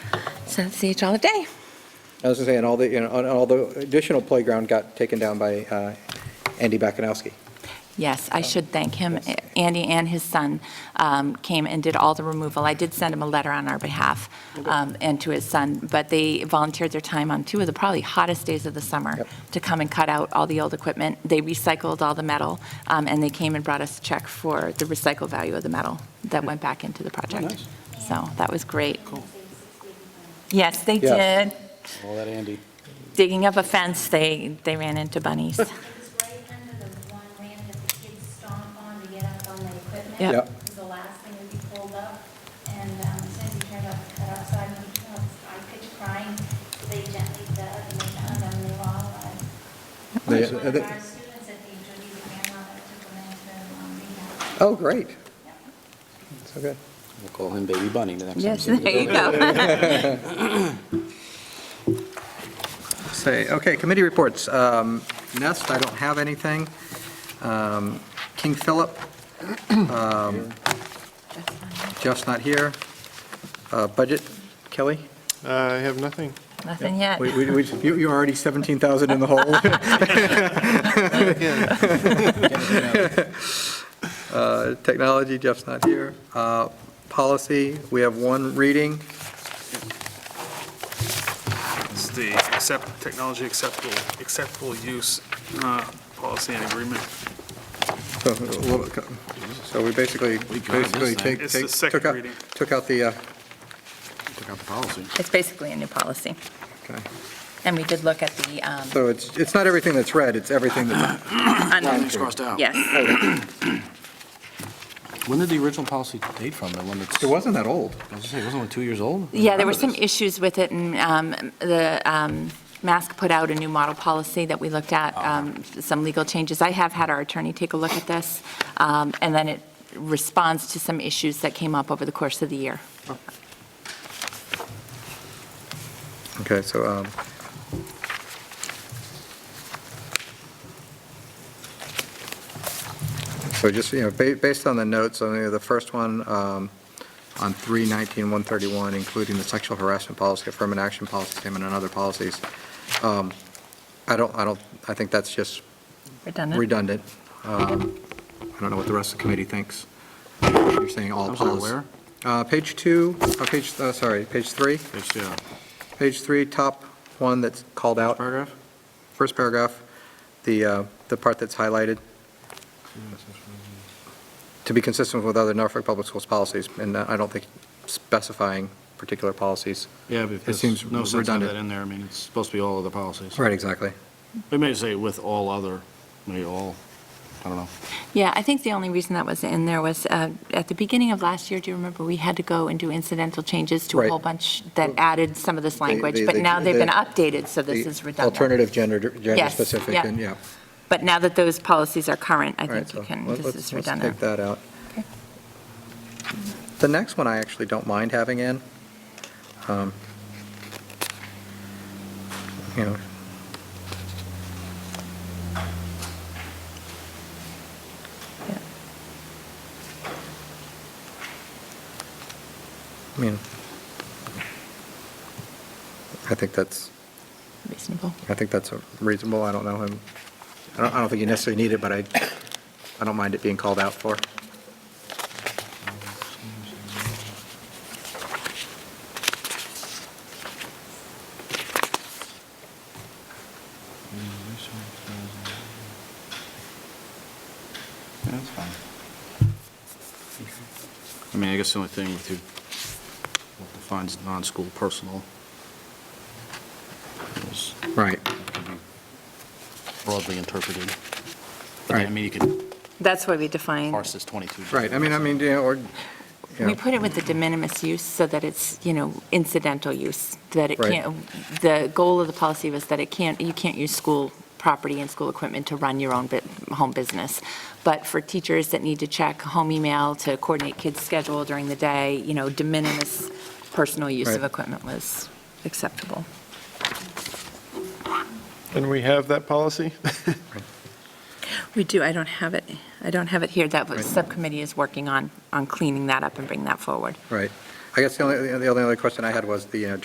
So that's the Agala Day. I was going to say, and all the, you know, and all the additional playground got taken down by uh, Andy Bakunowski. Yes, I should thank him. Andy and his son um, came and did all the removal. I did send him a letter on our behalf um, and to his son, but they volunteered their time on two of the probably hottest days of the summer Yep. to come and cut out all the old equipment. They recycled all the metal, um, and they came and brought us a check for the recycle value of the metal that went back into the project. So that was great. Yes, they Yes. did. All that Andy. Digging up a fence, they, they ran into bunnies. It's right under the one ramp that the kids stomp on to get up on the Yep. equipment. Yep. It was the last thing to be pulled up, and um, as soon as we turned off the cutout side, we, you know, I pitch crying, they gently dug, and we found them, they were all alive. They- One of they- our students at the Judy's grandma that took them into um, rehab. Oh, great. Yep. So good. We'll call him Baby Bunny the next time. Yes, there you go. Say, okay, committee reports. Um, Nest, I don't have anything. Um, King Philip, um, Jeff's not here. Uh, Budget, Kelly? I have nothing. Nothing yet. We- we- we- you- You're already 17,000 in the hole. Uh, Technology, Jeff's not here. Uh, Policy, we have one reading. It's the accept, technology acceptable, acceptable use uh, policy and agreement. So a little- so we basically, basically take- It's the take- second took out, reading. took out the, uh, Took out the policy. It's basically a new policy. okay. And we did look at the, um, so it's, it's not everything that's red, it's everything that's, un- It's crossed out. yes, When did the original policy date from? The one that's, it I was wasn't that old. gonna say, it wasn't it two years old? yeah, there were Remember some this. issues with it, and um, the um, MASC put out a new model policy that we looked at, um, some legal changes. I have had our attorney take a look at this, um, and then it responds to some issues that came up over the course of the year. Okay, so, um, so just, you know, ba- based on the notes, on the first one, um, on 319-131, including the sexual harassment policy, affirmative action policy statement, and other policies, um, I don't, I don't, I think that's just Redundant? redundant. Um, I don't know what the rest of the committee thinks. You're saying all I'm sorry, policies. where? Uh, Page two, uh, page, uh, sorry, page three. It's, yeah, Page three, top one that's called out, paragraph? first paragraph, the, uh, the part that's highlighted, to be consistent with other Norfolk Public Schools policies, and uh, I don't think specifying particular policies. Yeah, but It if there's seems no sense having redundant. that in there. I mean, it's supposed to be all other policies. Right, exactly. We may say with all other, maybe all, I don't know. Yeah, I think the only reason that was in there was, uh, at the beginning of last year, do you remember, we had to go and do incidental changes to a Right. whole bunch that added some of this language, they- but they- now they've been they- updated, so this The is redundant. Alternative gender, gender Yes, specific, yeah. and, yeah. But now that those policies are current, I All right, think so you can, let- this let's- is Let's redundant. take that out. Okay. The next one I actually don't mind having in. Um, You know, Yeah. I mean, I think that's, Reasonable. I think that's reasonable, I don't know him, I don't, I don't think you necessarily need it, but I, I don't mind it being called out for. Yeah, that's fine. I mean, I guess the only thing with you, what defines non-school personal is Right. can be broadly interpreted. But Right. then, I mean, you can That's why we define, parse this 22. Right, I mean, I mean, you know, or, you we know, put it with the de minimis use so that it's, you know, incidental use, that it Right. can't, the goal of the policy was that it can't, you can't use school property and school equipment to run your own bu- home business. But for teachers that need to check home email to coordinate kids' schedule during the day, you know, de minimis personal use of Right. equipment was acceptable. And we have that policy? We do, I don't have it, I don't have it here, that was- subcommittee is working on, on cleaning that up and bringing that forward. right. I guess the uh, only, the only other question I had was the, you know,